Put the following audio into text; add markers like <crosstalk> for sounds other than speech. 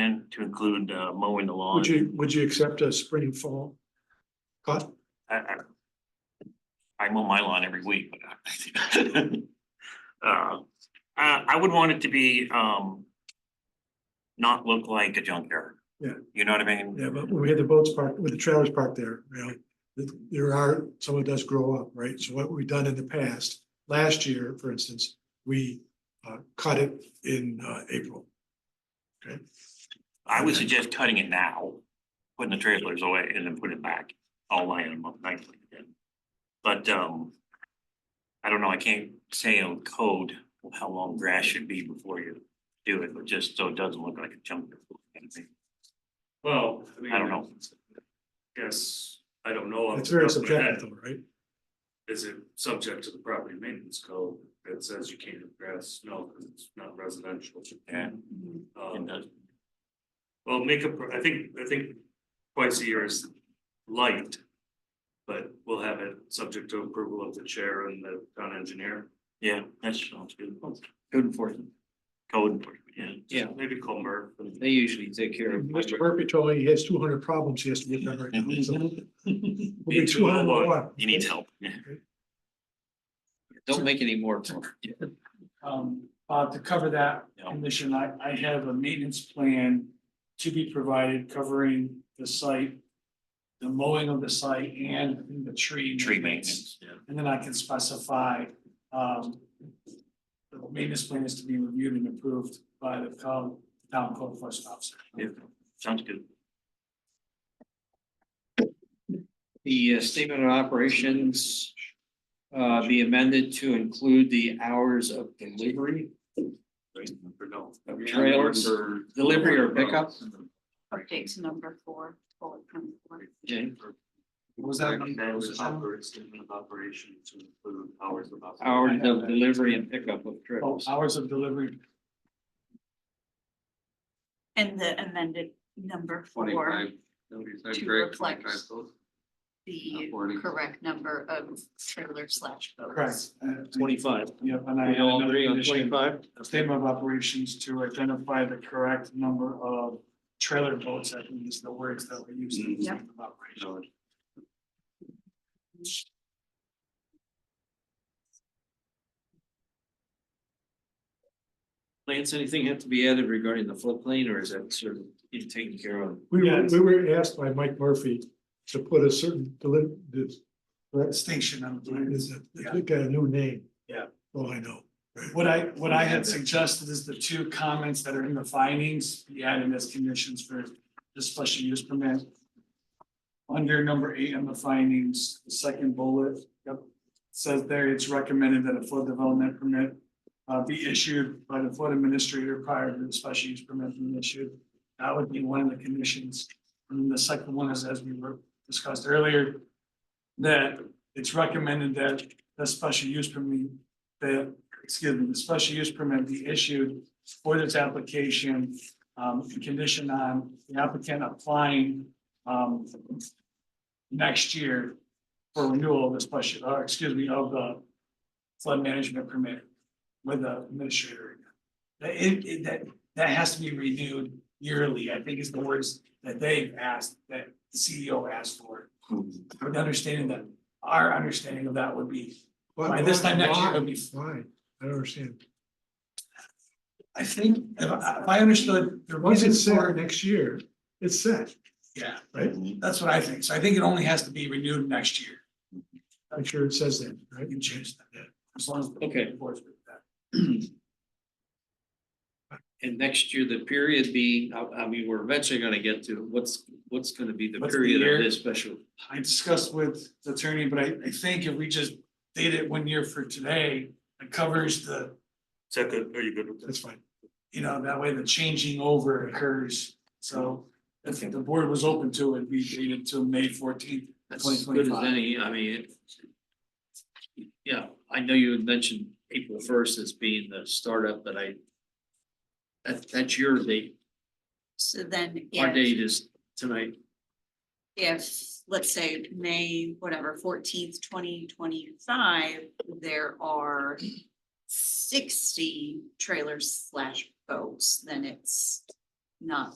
line to include uh, mowing the lawn. Would you, would you accept a spring and fall? Cut, I, I. I mow my lawn every week, but I. <laughs> Uh, I, I would want it to be, um. Not look like a junkyard. Yeah. You know what I mean? yeah, but when we had the boats parked, with the trailers parked there, you know, th- there are, someone does grow up, right? So what we've done in the past, last year, for instance, we uh, cut it in uh, April. I would suggest cutting it now, putting the trailers away and then putting it back, all lining them up nicely again. But, um. I don't know, I can't say on code how long grass should be before you do it, but just so it doesn't look like a junkyard. Well, I mean. I don't know. Guess, I don't know. off It's the very top of my head. subjective, though, right? Is it subject to the property maintenance code that says you can't have grass? No, because it's not residential. Yeah. It Um, does. well, make a, pro- I think, I think twice a year is light. But we'll have it subject to approval of the chair and the town engineer. Yeah, that sounds good. Code enforcement. Code enforcement, yeah. Yeah, Maybe call Murph. and- they usually take care of. Mr. Murphy told me he has two hundred problems he has to get done right now. so we'll be 201. He needs help. Yeah. Don't make any more. um, uh, to cover that Yeah. condition, I, I have a maintenance plan to be provided covering the site, the mowing of the site and the tree. Tree maintenance, yeah. And then I can specify, um, the maintenance plan is to be reviewed and approved by the town, town code enforcement officer. Yeah. Sounds good. The uh, statement of operations uh, be amended to include the hours of delivery, Right, or no. of trailers, delivery or pickup. Updates number four, bullet point four. Jane, Was That was operate statement of operation to include hours of operation. hours of delivery and pickup of trailers. Oh, Hours of delivery, And the amended number four, to reflect the correct number of trailer slash correct. boats. Uh, Twenty-five. Yep, and I. We had all another agree on condition. twenty-five? a statement of operations to identify the correct number of trailer boats, I think is the words that were used. in the Yep. statement of operations. No, Lance, anything have to be added regarding the floodplain or is that sort of being taken care of? We were, Yes. we were asked by Mike Murphy to put a certain deli- this, Distinction on the plan. this, it got a new name. Yeah. Oh, I know. What I, what I had suggested is the two comments that are in the findings, be added as conditions for the special use permit. Under number eight in the findings, the second bullet, yep, says there it's recommended that a flood development permit. Uh, be issued by the flood administrator prior to the special use permit being issued. That would be one of the conditions. And then the second one is, as we were discussed earlier. That it's recommended that the special use permit, that excuse me, the special use permit be issued for this application. Um, conditioned on um, the applicant applying, um, next year for renewal of the special, or excuse me, of the flood management permit with the administrator. That it, it- that, that has to be renewed yearly, I think is the words that they've asked, that the CEO asked for. Hmm. With the understanding that, our understanding of that would be, by this time next year, it'll be Fine, I don't understand. I think, if I if I understood, there Once wasn't it's set for, next year, it's set. yeah, Right. that's what I think, so I think it only has to be renewed next year, Make sure it says that, right? you can change that, yeah, as long as. the Okay. board's with that. And next year, the period being, I, I mean, we're eventually gonna get to what's, what's gonna be the What's the period year? of this special. I discussed with the attorney, but I, I think if we just did it one year for today, it covers the, Is that good? Are you good with that? That's fine. you know, that way the changing over occurs, so if the board was open to it, we dated till May fourteenth. That's as good as 2025. any, I mean, it. Yeah, I know you had mentioned April first as being the startup, but I. That, that's your date, So then our if, date is tonight, if, let's say, May, whatever, fourteenth, twenty twenty-five, there are sixty trailers slash boats, then it's not